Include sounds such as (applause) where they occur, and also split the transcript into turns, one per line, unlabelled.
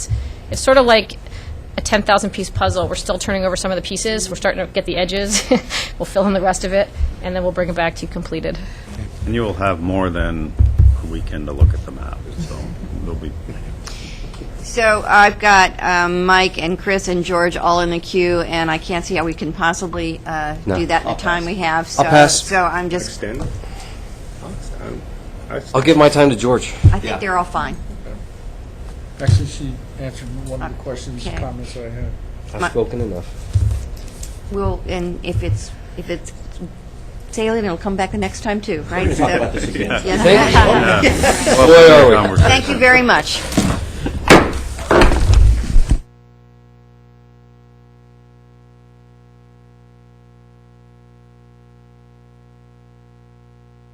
It's sort of like a 10,000 piece puzzle. We're still turning over some of the pieces. We're starting to get the edges. (laughs) we'll fill in the rest of it, and then we'll bring it back to you completed.
And you will have more than a weekend to look at the map, so there'll be,
So I've got um, Mike and Chris and George all in the queue, and I can't see how we can possibly uh,
No.
do that in the time we have. So,
I'll pass.
So I'm just,
Extend? I
I'll give my time to George.
I think they're all fine.
Actually, she answered one of the questions,
Okay.
comments I had.
I've spoken enough.
We'll, and if it's, if it's salient, it'll come back the next time too, right? So-
yeah.
Yes.
Boy, are we.
Conversation.
(laughs) Thank you very much.